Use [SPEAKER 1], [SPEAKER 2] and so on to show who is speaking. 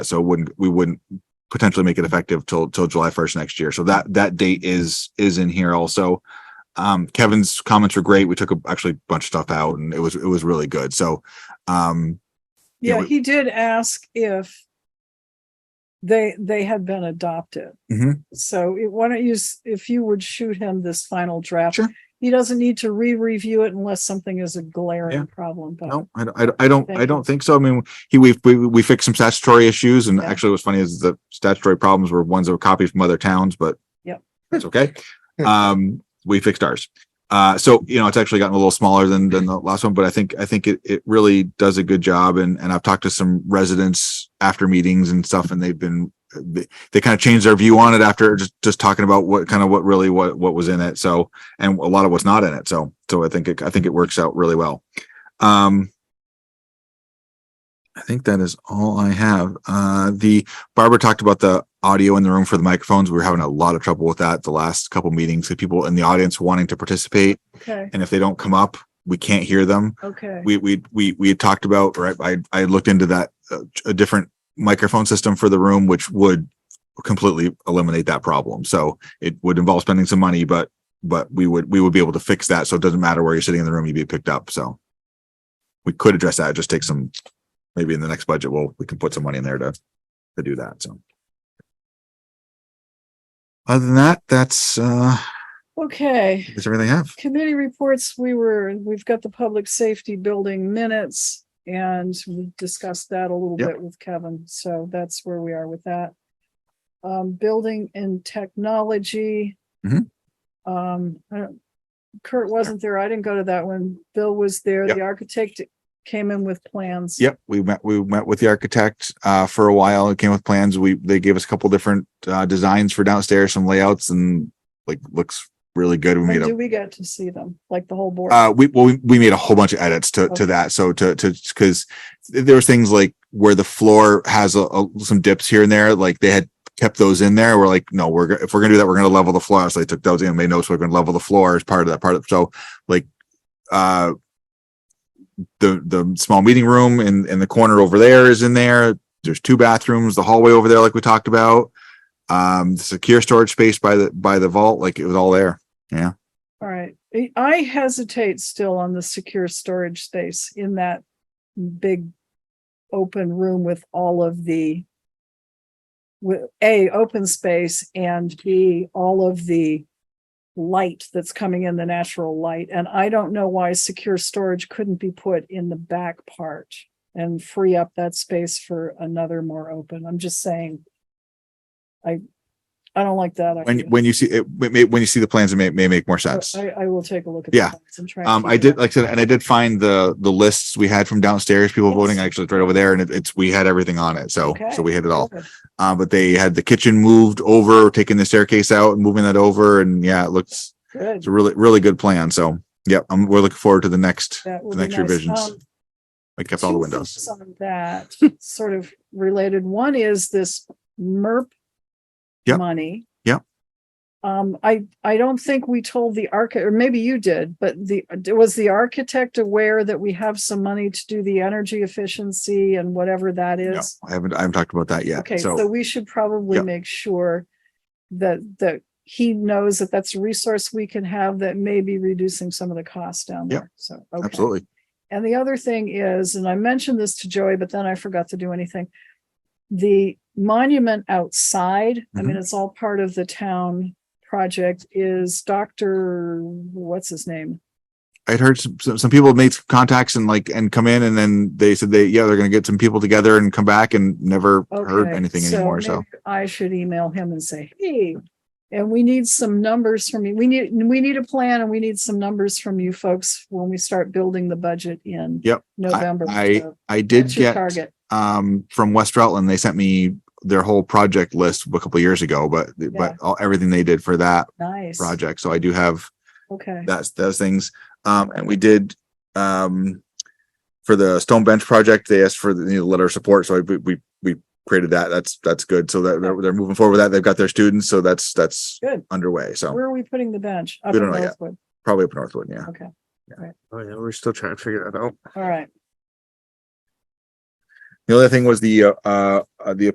[SPEAKER 1] So it wouldn't, we wouldn't potentially make it effective till, till July first next year. So that, that date is, is in here also. Um, Kevin's comments were great. We took a- actually a bunch of stuff out and it was, it was really good. So, um, Yeah,
[SPEAKER 2] Yeah,
[SPEAKER 1] we-
[SPEAKER 2] he did ask if they, they had been adopted.
[SPEAKER 1] Mhm.
[SPEAKER 2] So it- why don't you, s- if you would shoot him this final draft?
[SPEAKER 1] Sure.
[SPEAKER 2] He doesn't need to re-review it unless something is a glaring
[SPEAKER 1] Yeah.
[SPEAKER 2] problem, but
[SPEAKER 1] No, I, don't- I don't- I don't,
[SPEAKER 2] Thank
[SPEAKER 1] I
[SPEAKER 2] you.
[SPEAKER 1] don't think so. I mean, he, we, we, we fixed some statutory issues and
[SPEAKER 2] Yeah.
[SPEAKER 1] actually what's funny is the statutory problems were ones that were copied from other towns, but
[SPEAKER 2] Yep.
[SPEAKER 1] that's okay. Um, we fixed ours. Uh, so, you know, it's actually gotten a little smaller than, than the last one, but I think, I think it, it really does a good job. And, and I've talked to some residents after meetings and stuff and they've been, they, they kind of changed their view on it after just, just talking about what kind of what really what, what was in it. So, and a lot of what's not in it. So, so I think, it I think it works out really well. Um, I think that is all I have. Uh, the Barbara talked about the audio in the room for the microphones. We were having a lot of trouble with that the last couple meetings. The people in the audience wanting to participate,
[SPEAKER 2] okay,
[SPEAKER 1] and if they don't come up, we can't hear them.
[SPEAKER 2] okay.
[SPEAKER 1] We we we we had talked about right. I I looked into that uh, a different microphone system for the room, which would completely eliminate that problem. So it would involve spending some money, but but we would we would be able to fix that. So it doesn't matter where you're sitting in the room, you'd be picked up. So we could address that. Just take some maybe in the next budget, we'll we can put some money in there to to do that. So other than that, that's uh
[SPEAKER 2] Okay,
[SPEAKER 1] is everything I have.
[SPEAKER 2] committee reports, we were, we've got the public safety building minutes and we discussed that a little
[SPEAKER 1] Yep.
[SPEAKER 2] bit with Kevin, so that's where we are with that. Um, building and technology.
[SPEAKER 1] Mhm.
[SPEAKER 2] Um, I don't- Kurt wasn't there. I didn't go to that one. Bill was there.
[SPEAKER 1] Yep.
[SPEAKER 2] The architect came in with plans.
[SPEAKER 1] Yep, we met, we met with the architect uh for a while. It came with plans. We, they gave us a couple different uh designs for downstairs, some layouts and like looks really good. We
[SPEAKER 2] When
[SPEAKER 1] made a
[SPEAKER 2] do we get to see them? Like the whole board?
[SPEAKER 1] Uh, we well, we, we made a whole bunch of edits to
[SPEAKER 2] Okay.
[SPEAKER 1] to that. So to to because there was things like where the floor has a, a- some dips here and there, like they had kept those in there. We're like, no, we're go- if we're gonna do that, we're gonna level the floor. So they took those in and made notes. We're gonna level the floor as part of that part of so like uh the the small meeting room in in the corner over there is in there. There's two bathrooms, the hallway over there, like we talked about. Um, the secure storage space by the by the vault, like it was all there.
[SPEAKER 2] All right, I- I hesitate still on the secure storage space in that big open room with all of the with A, open space and B, all of the light that's coming in, the natural light. And I don't know why secure storage couldn't be put in the back part and free up that space for another more open. I'm just saying. I, I don't like that.
[SPEAKER 1] when
[SPEAKER 2] idea.
[SPEAKER 1] when you see it may- when you see the plans it may, may make more sense
[SPEAKER 2] I, I will take a look at.
[SPEAKER 1] Yeah.
[SPEAKER 2] Yeah,
[SPEAKER 1] um i did like i said and i did find the the lists we had from downstairs people
[SPEAKER 2] Yes.
[SPEAKER 1] voting actually it's right over there and it, it's we had everything on it so
[SPEAKER 2] Okay.
[SPEAKER 1] so we had it all um but they had the kitchen moved over taking the staircase out and moving that over and yeah it looks
[SPEAKER 2] Good.
[SPEAKER 1] it's a really really good plan so yeah um we're looking forward to the next
[SPEAKER 2] That
[SPEAKER 1] the
[SPEAKER 2] would be
[SPEAKER 1] next
[SPEAKER 2] nice.
[SPEAKER 1] revisions
[SPEAKER 2] Um,
[SPEAKER 1] i kept all the
[SPEAKER 2] two
[SPEAKER 1] windows
[SPEAKER 2] things On that, sort of related. One is this MERP
[SPEAKER 1] Yep.
[SPEAKER 2] money.
[SPEAKER 1] Yep.
[SPEAKER 2] Um, I, I don't think we told the archi, or maybe you did, but the, was the architect aware that we have some money to do the energy efficiency and whatever that
[SPEAKER 1] no,
[SPEAKER 2] is?
[SPEAKER 1] i haven't i haven't talked about that yet
[SPEAKER 2] Okay,
[SPEAKER 1] so,
[SPEAKER 2] so we should probably
[SPEAKER 1] Yep.
[SPEAKER 2] make sure that, that he knows that that's a resource we can have that may be reducing some of the costs down
[SPEAKER 1] Yep.
[SPEAKER 2] there. So. okay.
[SPEAKER 1] absolutely
[SPEAKER 2] And the other thing is, and I mentioned this to Joey, but then I forgot to do anything. The monument outside, I
[SPEAKER 1] Mm-hmm.
[SPEAKER 2] mean, it's all part of the town project is Dr. What's his name?
[SPEAKER 1] I'd heard some, some, some people made some contacts and like, and come in and then they said they, yeah, they're going to get some people together and come back and never heard
[SPEAKER 2] Okay,
[SPEAKER 1] anything anymore. So,
[SPEAKER 2] maybe I should email him and say, hey, and we need some numbers from you. We need, we need a plan and we need some numbers from you folks when we start building the budget in
[SPEAKER 1] Yep,
[SPEAKER 2] November.
[SPEAKER 1] I
[SPEAKER 2] So
[SPEAKER 1] I did
[SPEAKER 2] that's your
[SPEAKER 1] get,
[SPEAKER 2] Target.
[SPEAKER 1] um, from West Rutland, they sent me their whole project list a couple years ago, but,
[SPEAKER 2] Yeah.
[SPEAKER 1] but all, everything they did for that
[SPEAKER 2] Nice.
[SPEAKER 1] project. So I do have
[SPEAKER 2] Okay.
[SPEAKER 1] that's those things. Um, and we did, um, for the stone bench project, they asked for the you know, letter of support. So we, we, we created that. That's, that's good. So that they're, they're moving forward with that. They've got their students. So that's, that's
[SPEAKER 2] Good.
[SPEAKER 1] underway. So
[SPEAKER 2] Where are we putting the bench?
[SPEAKER 1] We
[SPEAKER 2] Up
[SPEAKER 1] don't
[SPEAKER 2] in
[SPEAKER 1] know yet.
[SPEAKER 2] Northwood.
[SPEAKER 1] probably up Northwood. Yeah.
[SPEAKER 2] Okay.
[SPEAKER 3] Oh yeah, we're still trying to figure that out.
[SPEAKER 2] All right.
[SPEAKER 1] The other thing was the, uh, uh, the